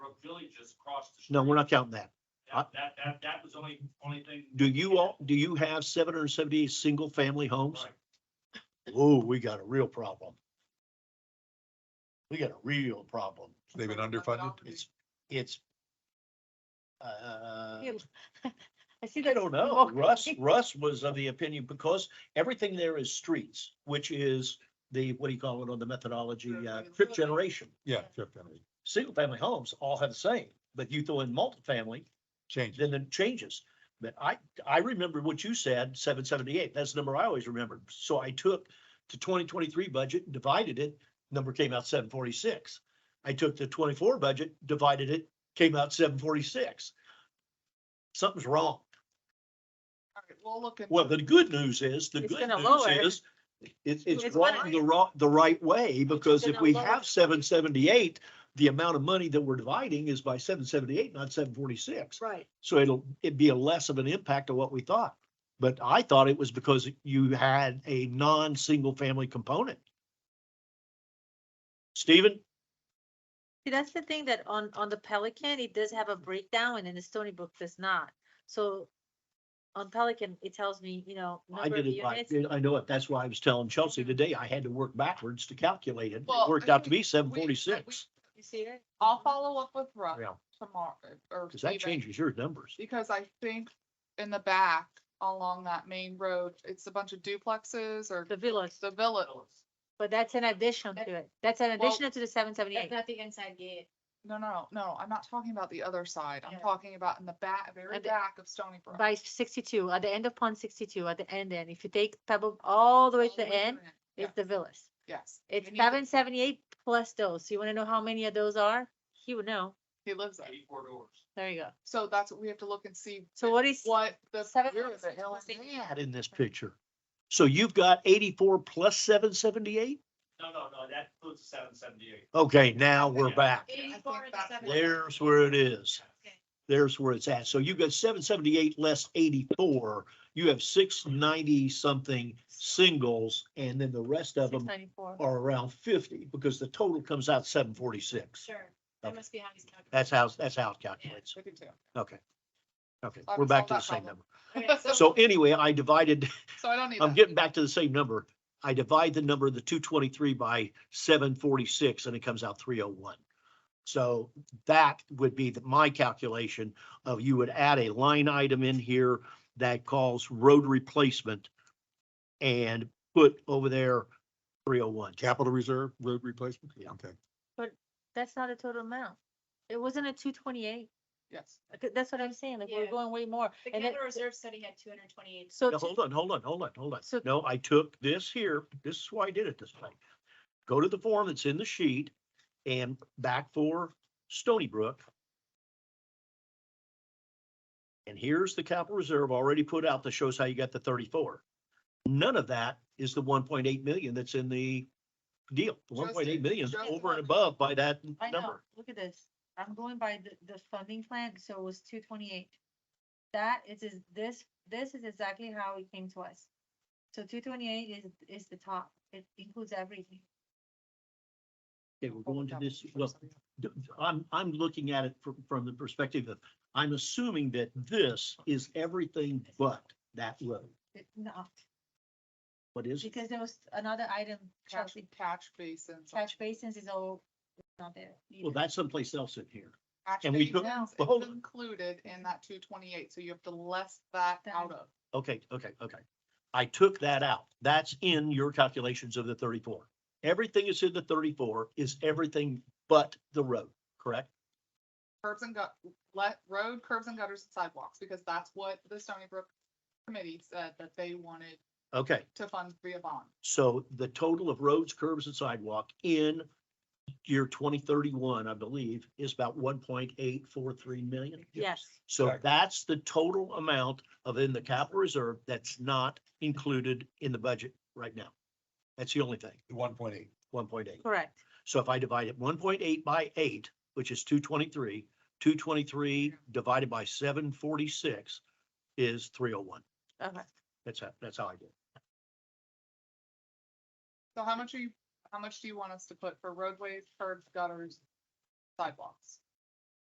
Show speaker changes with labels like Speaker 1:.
Speaker 1: really just crossed the.
Speaker 2: No,
Speaker 1: street.
Speaker 2: we're not counting that.
Speaker 1: That, that, that, that was only, only thing.
Speaker 2: Do you all, do you have seven hundred and seventy single family homes?
Speaker 1: Right.
Speaker 2: Whoa, we got a real problem. We got a real problem.
Speaker 3: They've been underfunded?
Speaker 2: It's, it's. Uh,
Speaker 4: Yeah, I see
Speaker 2: I
Speaker 4: that.
Speaker 2: don't know. Russ, Russ was of the opinion because everything there is streets, which is the, what do you call it on the methodology, uh, trip generation.
Speaker 3: Yeah, fifth generation.
Speaker 2: Single family homes all have the same, but you throw in multifamily,
Speaker 3: change. it.
Speaker 2: then it changes. But I, I remember what you said, seven seventy-eight, that's the number I always remembered. So I took the twenty twenty-three budget, and divided it, number came out seven forty-six. I took the twenty-four budget, divided it, came out seven forty-six. Something's wrong.
Speaker 4: We'll look at.
Speaker 2: Well, the good news is, the
Speaker 4: It's
Speaker 2: good
Speaker 4: gonna lower.
Speaker 2: news is, it's, it's
Speaker 4: It's
Speaker 2: wrong
Speaker 4: gonna-
Speaker 2: the wrong, the right way, because if
Speaker 4: gonna
Speaker 2: we
Speaker 4: lower.
Speaker 2: have seven seventy-eight, the amount of money that we're dividing is by seven seventy-eight, not seven forty-six.
Speaker 4: Right.
Speaker 2: So it'll, it'd be a less of an impact of what we thought. But I thought it was because you had a non-single family component. Stephen,
Speaker 4: See, that's the thing that on, on the Pelican, it does have a breakdown and then the Stony Brook does not. So on Pelican, it tells me, you know,
Speaker 2: I
Speaker 4: number of
Speaker 2: did it, by-
Speaker 4: units.
Speaker 2: I know it. That's why I was telling Chelsea
Speaker 4: Mhm.
Speaker 2: today, I had to work backwards to calculate it. It
Speaker 5: Well,
Speaker 2: worked
Speaker 5: I
Speaker 2: out to
Speaker 5: think
Speaker 2: be seven forty-six.
Speaker 4: You see that?
Speaker 5: I'll follow up with Russ
Speaker 2: Yeah,
Speaker 5: tomorrow or.
Speaker 2: because that
Speaker 5: even-
Speaker 2: changes your numbers.
Speaker 5: Because I think in the back along that main road, it's a bunch of duplexes or
Speaker 4: The villas,
Speaker 5: the villa.
Speaker 4: but that's an addition to it. That's an
Speaker 5: Well,
Speaker 4: addition to the seven
Speaker 6: That's
Speaker 4: seventy-eight.
Speaker 6: not the inside gate.
Speaker 5: No, no, no, I'm not talking about the other side. I'm
Speaker 6: Yeah.
Speaker 5: talking about in the back, very
Speaker 4: At the-
Speaker 5: back of Stony Brook.
Speaker 4: By sixty-two, at the end of pond sixty-two, at the end, and if you take Pebble all the way to
Speaker 5: All
Speaker 4: the
Speaker 5: way
Speaker 4: end,
Speaker 5: end.
Speaker 4: it's the villas.
Speaker 5: Yes.
Speaker 4: It's
Speaker 5: We need to-
Speaker 4: seven seventy-eight plus those. You wanna know how many of those are? He would know.
Speaker 5: He lives there.
Speaker 1: Eighty-four doors.
Speaker 4: There you go.
Speaker 5: So that's what we have to look and see
Speaker 4: So what is,
Speaker 5: what the.
Speaker 4: Seven
Speaker 5: where is
Speaker 4: houses
Speaker 5: it? Hell,
Speaker 4: plus eight.
Speaker 2: Add in this picture. So you've got eighty-four plus seven seventy-eight?
Speaker 1: No, no, no, that includes seven seventy-eight.
Speaker 2: Okay, now we're
Speaker 1: Yeah.
Speaker 2: back.
Speaker 6: Eighty-four and
Speaker 5: that's
Speaker 6: seven.
Speaker 2: There's where it is. there's where it's at. So you've got seven seventy-eight less eighty-four, you have six ninety something singles, and then the rest of
Speaker 4: six
Speaker 2: them
Speaker 4: ninety-four?
Speaker 2: are around fifty, because the total comes out seven forty-six.
Speaker 6: Sure, that must be how he's calculating.
Speaker 2: That's how, that's how it calculates.
Speaker 5: I do too.
Speaker 2: Okay. Okay,
Speaker 5: I've
Speaker 2: we're back to the
Speaker 5: solved
Speaker 2: same
Speaker 5: that problem.
Speaker 2: number.
Speaker 6: Okay,
Speaker 2: So anyway, I divided,
Speaker 5: So I don't need.
Speaker 2: I'm
Speaker 5: that.
Speaker 2: getting back to the same number. I divide the number, the two twenty-three by seven forty-six, and it comes out three oh one. So that would be the- my calculation of you would add a line item in here that calls road replacement and put over there three oh one.
Speaker 3: Capital reserve, road replacement?
Speaker 2: Yeah.
Speaker 3: Okay.
Speaker 4: That's not a total amount. It wasn't a two twenty-eight.
Speaker 5: Yes.
Speaker 4: That's what I'm saying, like, we're
Speaker 6: Yeah.
Speaker 4: going way more.
Speaker 6: The
Speaker 4: And then,
Speaker 6: capital reserve study had two hundred and twenty-eight.
Speaker 4: so,
Speaker 2: Now,
Speaker 4: to-
Speaker 2: hold on, hold on, hold on, hold on.
Speaker 4: So-
Speaker 2: No, I took this here. This is why I did it this way. Go to the form that's in the sheet and back for Stony Brook. And here's the capital reserve already put out that shows how you got the thirty-four. None of that is the one point eight million that's in the deal. The one
Speaker 5: Just-
Speaker 2: point eight million is
Speaker 5: just
Speaker 2: over and
Speaker 5: what-
Speaker 2: above by that
Speaker 4: I know,
Speaker 2: number.
Speaker 4: look at this. I'm going by the, the funding plan, so it was two twenty-eight. That is, is this, this is exactly how it came to us. So two twenty-eight is, is the top. It includes everything.
Speaker 2: Okay, we're going to this, well, d- I'm, I'm looking at it from, from the perspective of, I'm assuming that this is everything but that road.
Speaker 4: It- No,
Speaker 2: What is, it?
Speaker 4: because there was another item,
Speaker 5: Catch,
Speaker 4: Chelsea,
Speaker 5: catch basins.
Speaker 4: catch basins is all not there.
Speaker 2: well,
Speaker 4: either.
Speaker 2: that's someplace else in here.
Speaker 5: Catch
Speaker 2: and we took-
Speaker 5: basins
Speaker 2: well, hold
Speaker 5: is
Speaker 2: on.
Speaker 5: included in that two twenty-eight, so you have to less that
Speaker 4: That-
Speaker 5: out of.
Speaker 2: Okay, okay, okay. I took that out. That's in your calculations of the thirty-four. Everything is in the thirty-four is everything but the road, correct?
Speaker 5: curbs and gut, let, road curbs and gutters and sidewalks, because that's what the Stony Brook committee said that they wanted
Speaker 2: Okay,
Speaker 5: to fund via bond.
Speaker 2: so the total of roads, curbs and sidewalk in year twenty thirty-one, I believe, is about one point eight four three million.
Speaker 4: Yes,
Speaker 2: So
Speaker 3: Correct.
Speaker 2: that's the total amount of in the capital reserve that's not included in the budget right now. That's the only thing,
Speaker 3: One point eight.
Speaker 2: one point eight.
Speaker 4: correct.
Speaker 2: So if I divide it one point eight by eight, which is two twenty-three, two twenty-three divided by seven forty-six is three oh one.
Speaker 4: Okay.
Speaker 2: That's how, that's how I did. it.
Speaker 5: So how much are you, how much do you want us to put for roadways, curbs, gutters, sidewalks?